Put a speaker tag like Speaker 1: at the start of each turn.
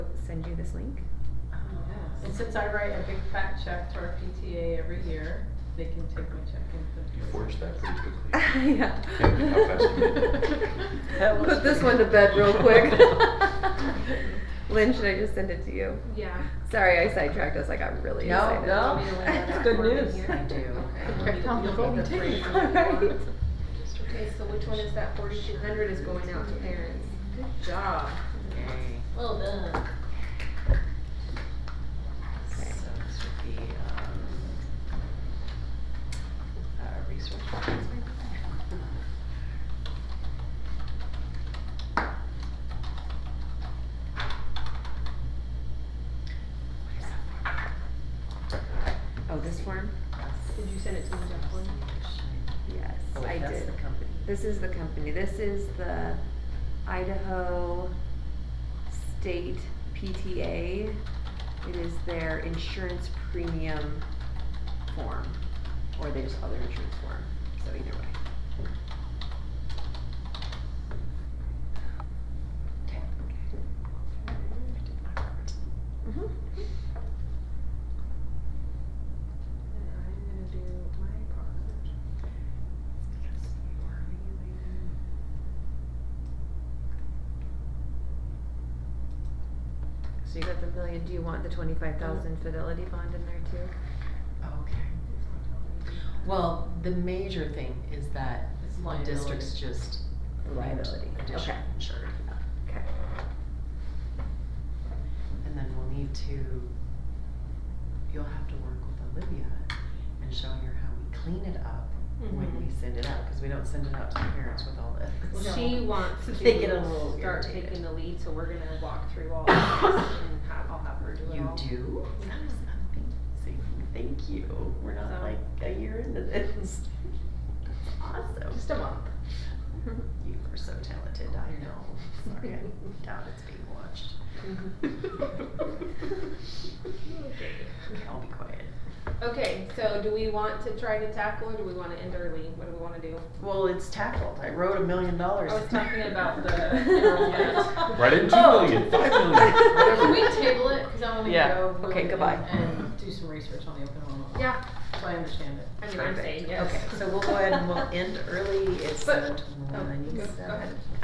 Speaker 1: send you this link.
Speaker 2: And since I write a big fat check to our PTA every year, they can take my check
Speaker 3: You
Speaker 2: and put it.
Speaker 3: forged that pretty quickly.
Speaker 1: yeah.
Speaker 3: Can't be how fast you
Speaker 2: That was
Speaker 1: Put this one to bed real quick. Lynn, should I just send it to you?
Speaker 2: Yeah.
Speaker 1: Sorry, I sidetracked us. I got really
Speaker 4: No,
Speaker 1: excited.
Speaker 4: no.
Speaker 2: Want me to lay that
Speaker 4: It's
Speaker 2: out
Speaker 4: good
Speaker 2: for you
Speaker 4: news.
Speaker 2: here?
Speaker 4: I do.
Speaker 2: Okay.
Speaker 5: Okay.
Speaker 2: You'll- you'll get the free
Speaker 4: ticket.
Speaker 2: one.
Speaker 1: Alright.
Speaker 5: Okay, so which one is that forty-two hundred is going out to parents? Good job.
Speaker 2: Well done.
Speaker 4: So this would be, um, uh, resource. plans, maybe?
Speaker 1: Oh, this form?
Speaker 2: Did you send it to me, Jacqueline?
Speaker 1: Yes,
Speaker 4: Oh,
Speaker 1: I
Speaker 4: wait, that's
Speaker 1: did.
Speaker 4: the company.
Speaker 1: This is the company. This is the Idaho State PTA. It is their insurance premium form, or they just call their insurance form. So either way.
Speaker 4: Okay. I did not remember to-
Speaker 1: Mm-hmm.
Speaker 2: And I'm gonna do my part.
Speaker 4: yes, you are.
Speaker 1: So you got the million. Do you want the twenty-five thousand fidelity bond in there too?
Speaker 4: Okay. Well, the major thing is that one district's just.
Speaker 1: Liability.
Speaker 4: Additional
Speaker 1: Okay.
Speaker 4: insured.
Speaker 1: Okay.
Speaker 4: And then we'll need to, you'll have to work with Olivia and show her how we clean it up when we send it out, cause we don't send it out to the parents with all
Speaker 2: Well,
Speaker 4: this.
Speaker 2: She wants to
Speaker 4: They get a little
Speaker 2: start
Speaker 4: irritated.
Speaker 2: taking the lead, so we're gonna walk through all of this and have, I'll have her do it
Speaker 4: You
Speaker 2: all.
Speaker 4: do? That was amazing, thank you, we're not
Speaker 2: So-
Speaker 4: like a year into this. Awesome.
Speaker 2: Just a month.
Speaker 4: You are so talented, I know, sorry, I doubt it's being watched. Okay, I'll be quiet.
Speaker 5: Okay, so do we want to try to tackle or do we wanna end early? What do we wanna do?
Speaker 4: Well, it's tackled, I wrote a million dollars.
Speaker 2: I was talking about the enrollment.
Speaker 3: Right in two
Speaker 4: Oh.
Speaker 3: million, five million.
Speaker 2: Can we table it, cause I wanna
Speaker 4: Yeah.
Speaker 2: go.
Speaker 4: Okay,
Speaker 2: and-
Speaker 4: goodbye.
Speaker 2: And do some research on the open enrollment. law,
Speaker 5: Yeah,
Speaker 2: So I understand it.
Speaker 5: I mean, I'm saying yes.
Speaker 4: Okay, so we'll go ahead and we'll end early, it's
Speaker 5: But-
Speaker 2: oh,
Speaker 4: seven twenty-one.
Speaker 5: Oh, go- go ahead.